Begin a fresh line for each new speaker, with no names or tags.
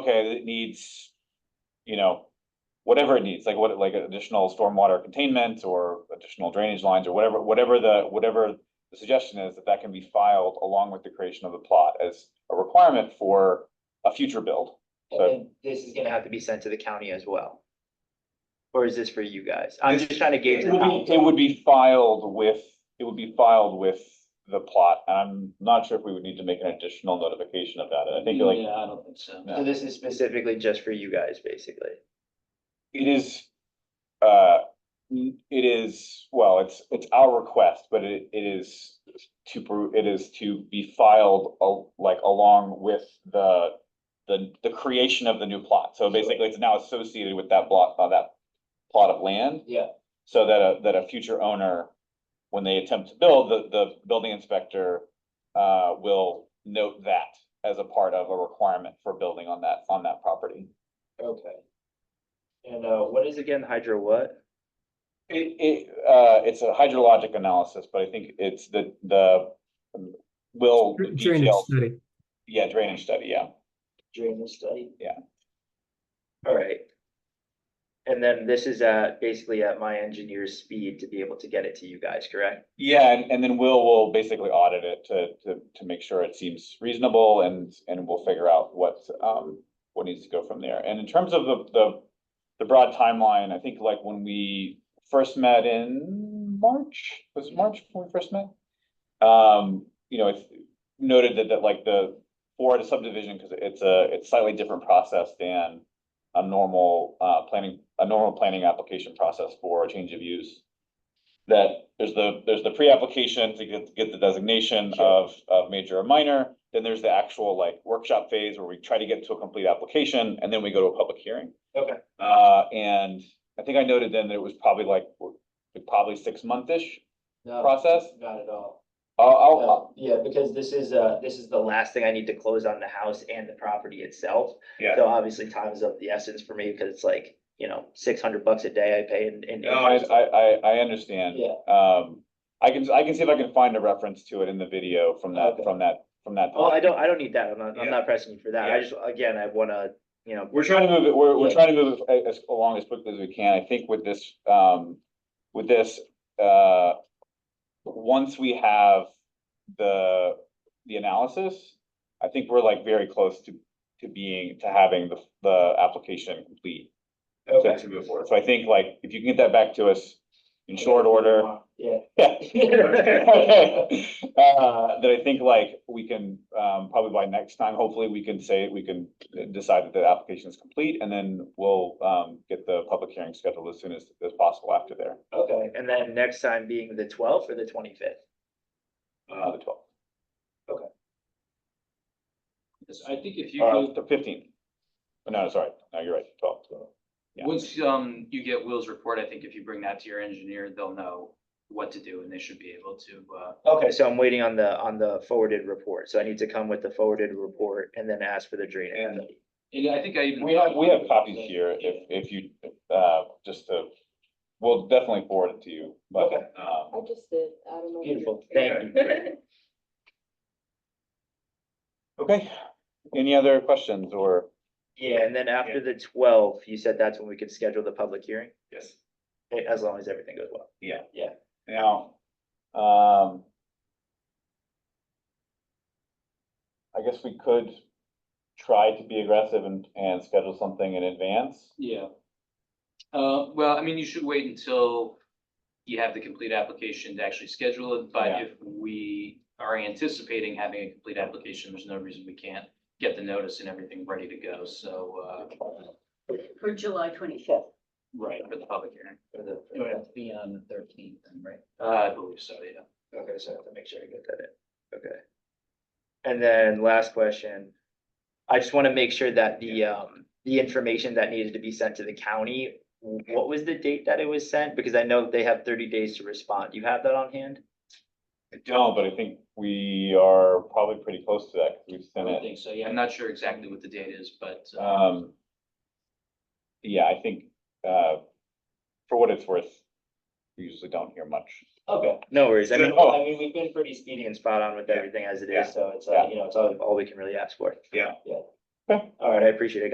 okay, it needs, you know, whatever it needs, like what, like additional stormwater containment or additional drainage lines or whatever, whatever the, whatever the suggestion is that that can be filed along with the creation of the plot as a requirement for a future build.
And then this is gonna have to be sent to the county as well? Or is this for you guys? I'm just trying to gauge.
It would be, it would be filed with, it would be filed with the plot. And I'm not sure if we would need to make an additional notification of that. I think like
Yeah, I don't think so.
Yeah.
So this is specifically just for you guys, basically.
It is, uh, n- it is, well, it's, it's our request, but it, it is to, pro- it is to be filed al- like along with the, the, the creation of the new plot. So basically, it's now associated with that block, uh, that plot of land.
Yeah.
So that a, that a future owner, when they attempt to build, the, the building inspector, uh, will note that as a part of a requirement for building on that, on that property.
Okay. And uh, what is again hydro what?
It, it, uh, it's a hydrologic analysis, but I think it's the, the, um, will
Drainage
detail,
study.
yeah, drainage study, yeah.
Drainage study?
Yeah.
All right. And then this is at, basically at my engineer's speed to be able to get it to you guys, correct?
Yeah, and, and then we'll, will basically audit it to, to, to make sure it seems reasonable and, and we'll figure out what, um, what needs to go from there. And in terms of the, the, the broad timeline, I think like when we first met in March, was it March when we first met? Um, you know, it's noted that, that like the, for the subdivision, because it's a, it's slightly different process than a normal, uh, planning, a normal planning application process for a change of use that there's the, there's the pre-application to get, get the designation
Sure.
of, of major or minor. Then there's the actual like workshop phase where we try to get to a complete application and then we go to a public hearing.
Okay.
Uh, and I think I noted then that it was probably like, probably six month-ish process.
Not at all.
I'll, I'll,
No, Oh, uh, Yeah, because this is, uh, this is the last thing I need to close on the house and the property itself.
Yeah.
So obviously time is of the essence for me because it's like, you know, six hundred bucks a day I pay in, in.
No, I,
interest.
I, I, I understand.
Yeah.
Um, I can, I can see if I can find a reference to it in the video from that,
Okay.
from that, from that.
Oh, I don't, I don't need that. I'm not, I'm
Yeah.
not pressing you for that.
Yeah.
I just, again, I wanna, you know.
We're trying to move it, we're, we're
Yeah.
trying to move it a- as along as quickly as we can. I think with this, um, with this, uh, once we have the, the analysis, I think we're like very close to, to being, to having the, the application complete. to- To move forward. So I think like, if you can get that back to us in short order.
Yeah.
Yeah. Uh, That I think like we can, um, probably by next time, hopefully we can say, we can decide that the application is complete and then we'll, um, get the public hearing scheduled as soon as, as possible after there,
Okay, and then next time being the twelfth or the twenty-fifth?
uh, the twelfth,
Yes, I think if you
uh,
go,
the fifteenth. Oh, No, sorry, no, you're right, twelfth. yeah.
once, um, you get Will's report, I think if you bring that to your engineer, they'll know what to do and they should be able to, uh,
Okay, so I'm waiting on the, on the forwarded report. So I need to come with the forwarded report and then ask for the drainage.
And-
study.
and I think I even.
We have, we have copies here if, if you, uh, just to, we'll definitely forward it to you, but,
Okay.
um,
I just did, I don't know. if you-
Beautiful, thank you.
okay. Any other questions or?
Yeah, and then after the twelve, you said that's when we could schedule the public hearing,
Yes.
eh, as long as everything goes well.
Now, um. I guess we could try to be aggressive and, and schedule something in advance.
Yeah. Uh, well, I mean, you should wait until you have the complete application to actually schedule it,
Yeah.
but if we are anticipating having a complete application, there's no reason we can't get the notice and everything ready to go, so, uh,
For July twenty-fifth.
right, for the public hearing.
Okay,
It would have to be on the thirteenth then, right?
Uh, I believe so, yeah.
so I have to make sure I get that in, okay. And then last question, I just want to make sure that the, um, the information that needed to be sent to the county, w- what was the date that it was sent? Because I know they have thirty days to respond. Do you have that on hand?
I don't, but I think we are probably pretty close to that, because we've
I
sent
would
it,
think so, yeah. I'm not sure exactly what the date is, but, uh,
um. Yeah, I think, uh, for what it's worth, we usually don't hear much.
Okay. No worries, I mean, oh,
Good.
I mean, we've been pretty speedy and spot on with
Yeah.
everything as it
Yeah.
is, so it's,
Yeah.
uh, you know, it's all, all we can really ask for.
Yeah.
Yeah. All right, I appreciate it, guys.